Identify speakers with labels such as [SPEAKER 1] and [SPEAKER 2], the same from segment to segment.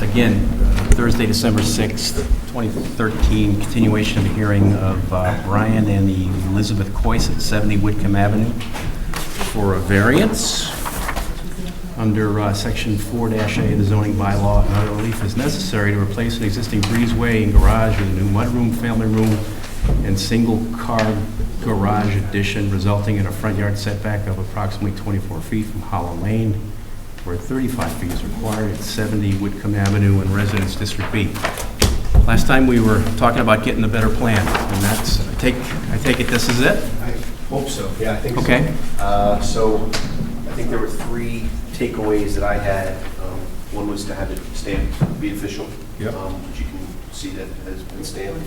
[SPEAKER 1] again, uh, Thursday, December 6th, 2013, continuation of the hearing of uh, Brian and Elizabeth Coyce at 70 Whitcomb Avenue for a variance under uh, Section 4-A of the zoning bylaw. and Another relief is necessary to replace an existing breezeway and garage with a new mudroom, family room, and single-car garage addition resulting in a front yard setback of approximately 24 feet from Hollow Lane where 35 feet is required at 70 Whitcomb Avenue in Residence District B. Last time, we were talking about getting a better plan, and that's, I take, I take it this is it?
[SPEAKER 2] I hope so, yeah, I think so.
[SPEAKER 1] Okay.
[SPEAKER 2] Uh, So I think there were three takeaways that I had. Um, One was to have it stamped, be official.
[SPEAKER 1] Yep.
[SPEAKER 2] um, Which you can see that has been stamped.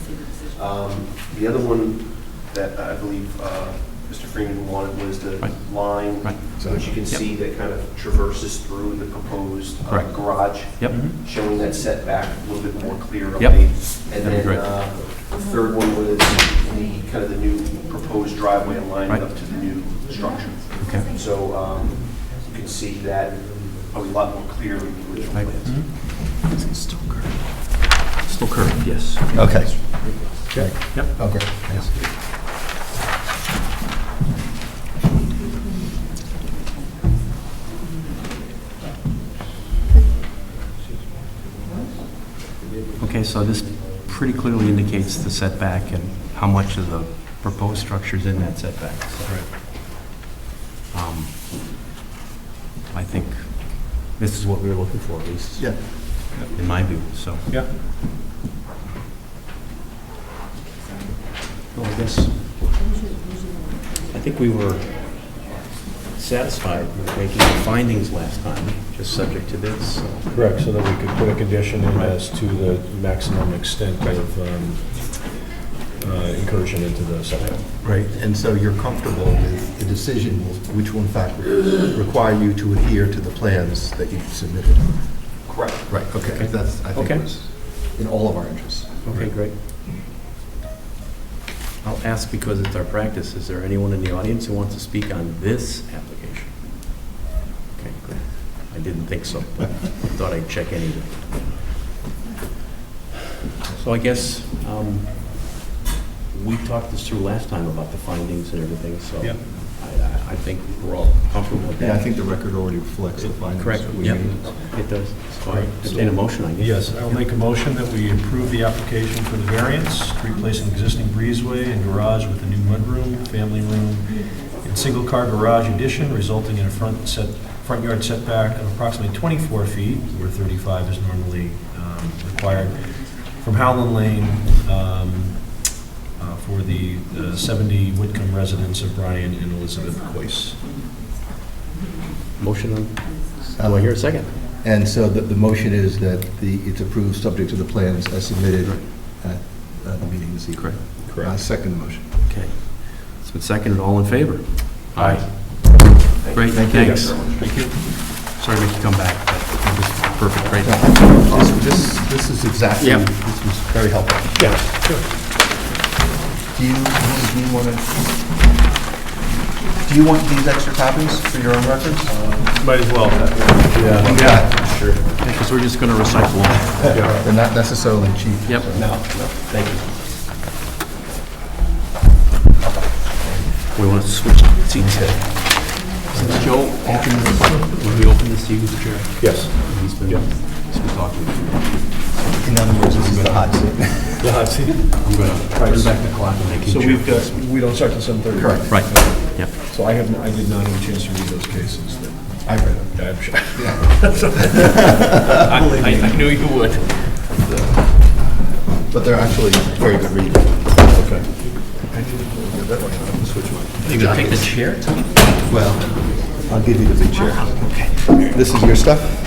[SPEAKER 2] Um, The other one that I believe uh, Mr. Freeman wanted was the
[SPEAKER 1] Right.
[SPEAKER 2] line,
[SPEAKER 1] Right.
[SPEAKER 2] which you can
[SPEAKER 1] Yep.
[SPEAKER 2] see that kind of traverses through the proposed uh,
[SPEAKER 1] Correct.
[SPEAKER 2] garage
[SPEAKER 1] Yep,
[SPEAKER 2] showing that setback a little bit more clear up
[SPEAKER 1] Yep.
[SPEAKER 2] there. And
[SPEAKER 1] That'd be
[SPEAKER 2] then
[SPEAKER 1] great.
[SPEAKER 2] uh, the third one was the, kind of the new proposed driveway line
[SPEAKER 1] Right.
[SPEAKER 2] up to the new structure.
[SPEAKER 1] okay.
[SPEAKER 2] So um, you can see that a lot more clear in the original
[SPEAKER 1] Right.
[SPEAKER 2] plans.
[SPEAKER 1] Is it Still curved. Still curved, yes.
[SPEAKER 3] Okay.
[SPEAKER 1] Yep.
[SPEAKER 3] Oh, great, thanks.
[SPEAKER 1] Okay, so this pretty clearly indicates the setback and how much of the proposed structure's in that setback. so. Um, I think this is what we were looking for, at least.
[SPEAKER 3] Yeah.
[SPEAKER 1] in my view, so.
[SPEAKER 3] Yeah.
[SPEAKER 1] Well, I guess, I think we were satisfied with making the findings last time, just subject to this, so.
[SPEAKER 4] Correct, so that we could put a condition in
[SPEAKER 1] Right.
[SPEAKER 4] as to the maximum extent of um, uh, incursion into the setback.
[SPEAKER 3] Right, and so you're comfortable with the decision, will- which will in fact require you to adhere to the plans that you submitted?
[SPEAKER 2] Correct.
[SPEAKER 3] Right, okay, that's, I
[SPEAKER 1] Okay.
[SPEAKER 3] think was in all of our interests.
[SPEAKER 1] Okay, great. I'll ask because it's our practice, is there anyone in the audience who wants to speak on this application? Okay, great. I didn't think so, but I thought I'd check anyway. So I guess um, we talked this through last time about the findings and everything, so
[SPEAKER 4] Yeah.
[SPEAKER 1] I- I- I think we're all comfortable with that.
[SPEAKER 3] Yeah, I think the record already reflects the findings.
[SPEAKER 1] Correct,
[SPEAKER 3] that we
[SPEAKER 1] yeah,
[SPEAKER 3] made.
[SPEAKER 1] it does. So I entertain a motion, I guess.
[SPEAKER 4] Yes, I'll make a motion that we approve the application for the variance, to replace an existing breezeway and garage with a new mudroom, family room, and single-car garage addition resulting in a front set, front yard setback of approximately 24 feet, where 35 is normally um, required, from Howland Lane um, uh, for the uh, 70 Whitcomb residents of Brian and Elizabeth Coyce.
[SPEAKER 1] Motion on, do I hear a second?
[SPEAKER 3] And so the, the motion is that the, it's approved subject to the plans as submitted at uh, the meeting this evening.
[SPEAKER 4] Correct.
[SPEAKER 3] I second the motion.
[SPEAKER 1] Okay. It's been seconded, all in favor? Aye. Great,
[SPEAKER 3] Thank you.
[SPEAKER 1] thanks. Thank you. Sorry to make you come back, but it was perfect, great.
[SPEAKER 3] This, this- this is exactly,
[SPEAKER 1] Yeah.
[SPEAKER 3] this was very helpful.
[SPEAKER 4] Yes, sure.
[SPEAKER 3] Do you, do you want to, do you want these extra copies for your own records?
[SPEAKER 4] Might as well. Yeah.
[SPEAKER 3] Yeah.
[SPEAKER 4] Sure.
[SPEAKER 1] Because we're just going to recycle them.
[SPEAKER 3] They're not necessarily cheap.
[SPEAKER 1] Yep.
[SPEAKER 3] No.
[SPEAKER 1] Thank you. We want to switch seats here. Since Joe opened, when we opened this, he was the chair.
[SPEAKER 4] Yes.
[SPEAKER 1] He's been, he's been talking.
[SPEAKER 3] In other words, this is the hot seat.
[SPEAKER 4] The hot seat.
[SPEAKER 1] I'm going to turn back the clock and make
[SPEAKER 4] So
[SPEAKER 1] him
[SPEAKER 4] we've
[SPEAKER 1] chair.
[SPEAKER 4] got, we don't start till 7:30?
[SPEAKER 3] Correct.
[SPEAKER 1] Right, yep.
[SPEAKER 4] So I have, I did not have a chance to read those cases. that-
[SPEAKER 3] I read them.
[SPEAKER 4] I'm sure.
[SPEAKER 1] I I knew you would.
[SPEAKER 3] But they're actually very good reading.
[SPEAKER 4] Okay.
[SPEAKER 1] You going to take the chair?
[SPEAKER 3] Well, I'll give you the big chair. This is your stuff?